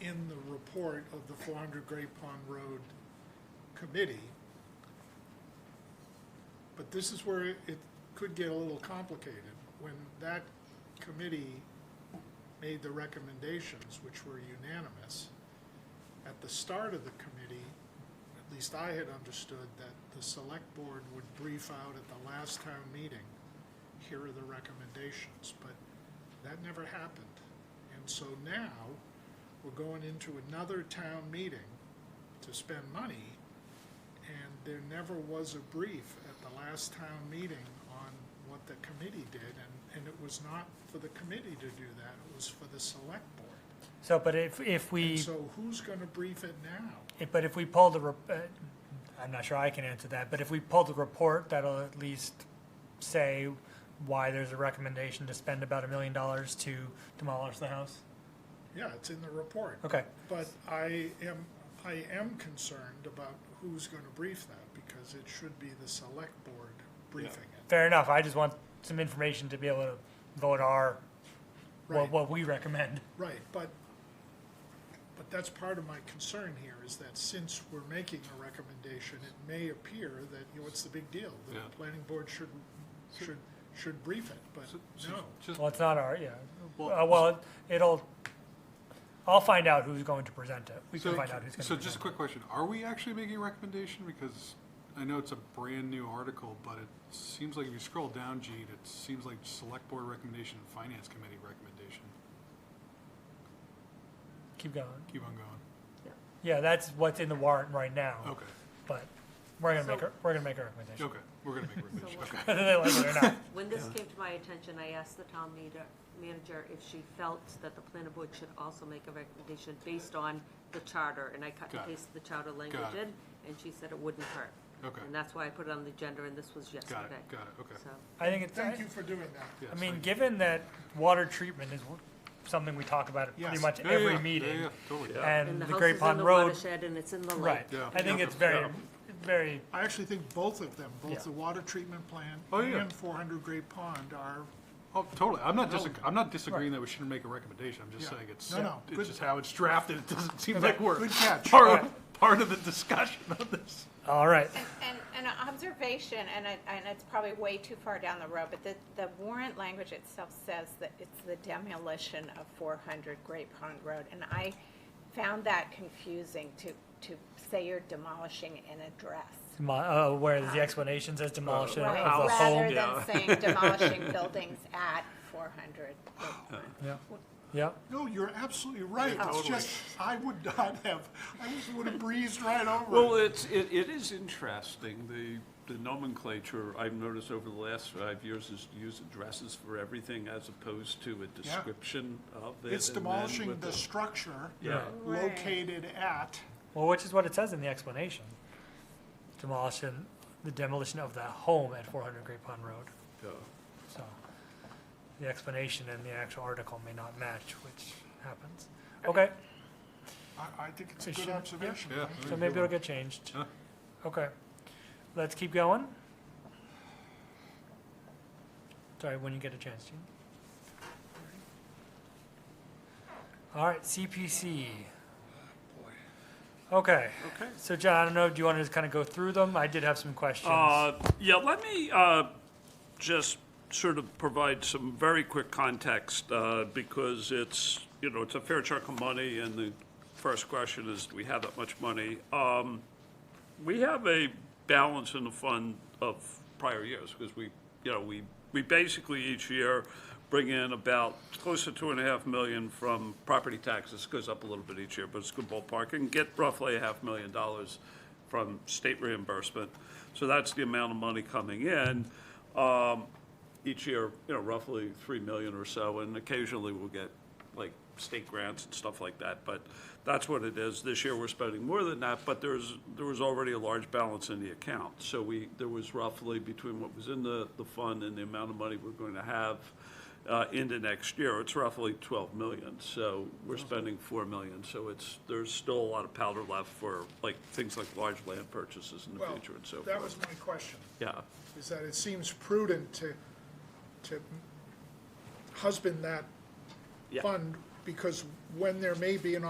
in the report of the four hundred Great Pond Road Committee. But this is where it could get a little complicated. When that committee made the recommendations, which were unanimous, at the start of the committee, at least I had understood that the select board would brief out at the last town meeting, here are the recommendations, but that never happened. And so now, we're going into another town meeting to spend money, and there never was a brief at the last town meeting on what the committee did, and, and it was not for the committee to do that, it was for the select board. So, but if, if And we, so who's gonna brief it now? if- but if we pull the, rep- uh, I'm not sure I can answer that, but if we pull the report, that'll at least say why there's a recommendation to spend about a million dollars to demolish the house? Yeah, it's in the report, Okay, but I am, I am concerned about who's gonna brief that, because it should be the select board briefing it. fair enough. I just want some information to be able to vote our, Right. what, what we recommend. Right, but, but that's part of my concern here, is that since we're making a recommendation, it may appear that, you know, what's the big deal? The Yeah. planning board should, should, should brief it, but So- so no. Just, Well, it's not our, yeah. Well- Uh, well, it'll, I'll find out who's going to present it. We can so, find out who's going to present it. so just a quick question, are we actually making a recommendation? Because I know it's a brand-new article, but it seems like if you scroll down, Gene, it seems like Select Board Recommendation, and Finance Committee Recommendation. Keep going. Keep on going. Yeah, that's what's in the warrant right now. Okay, But we're gonna make, So- a- we're gonna make a recommendation. okay, we're gonna make a recommendation, what- okay. Whether they like it or not. When this came to my attention, I asked the town meter- manager if she felt that the planning board should also make a recommendation based on the charter, and I cut and Got it. pasted the charter language it. in, and she said it wouldn't hurt. Okay. And that's why I put it on the agenda, and this was yesterday. Got it, got it, okay. So, I think it's, Thank you I for doing that. Yes, mean, thank given that water treatment is something we talk about at pretty Yes. much you. Yeah, yeah, every yeah, Yeah, meeting. yeah, totally. And and the the house Great is in Pond the Road, watershed, and it's in the lake. right. Yeah. I think Yeah. it's very, Yeah. very, I actually think both of them, Yeah. both the water treatment plant Oh, yeah. and four hundred Great Pond are, Oh, totally, I'm not disag, I'm not disagreeing that we shouldn't make a recommendation, I'm just Yeah. saying it's, No, no, good- it's just how it's drafted, it doesn't seem like we're good catch. part of, part of the discussion on this. all right. And, and an observation, and it, and it's probably way too far down the road, but the, the warrant language itself says that it's the demolition of four hundred Great Pond Road, and I found that confusing to, to say you're demolishing an address. Demo- uh, where the explanation says demolition of Right, the rather whole. yeah. than saying demolishing buildings at four hundred. Yeah, no, you're absolutely right. Yeah, It's totally. just, I would not have, I just would have breezed right Well, over it. it's, it, it is interesting, the, the nomenclature I've noticed over the last five years is to use addresses for everything as opposed to a description of it. It's and then demolishing with the structure Yeah, located at, well, which is what it says in the explanation. Demolition, the demolition of the home at four hundred Great Pond Road. yeah. So the explanation in the actual article may not match, which happens. Okay, I, I think it's a It good should- yeah. observation. Yeah. so maybe it'll get changed. Huh. Okay, let's keep going. Sorry, when you get a chance, Gene. All right, CPC. Okay, Okay. so John, I don't know, do you want to just kind of go through them? I did have some questions. Uh, Yeah, let me uh, just sort of provide some very quick context, uh, because it's, you know, it's a fair chunk of money, and the first question is, do we have that much money? Um, We have a balance in the fund of prior years, because we, you know, we, we basically each year bring in about close to two and a half million from property taxes, goes up a little bit each year, but it's a good ballpark, and get roughly a half million dollars from state reimbursement. So that's the amount of money coming in. Um, each year, you know, roughly three million or so, and occasionally we'll get like state grants and stuff like that, but that's what it is. This year, we're spending more than that, but there's, there was already a large balance in the account. So we, there was roughly between what was in the, the fund and the amount of money we're going to have uh, into next year, it's roughly twelve million. So we're spending four million, so it's, there's still a lot of powder left for like, things like large land purchases in the Well, future and so forth. that was my question, Yeah, is that it seems prudent to, to husband that Yeah. fund, because when there may be an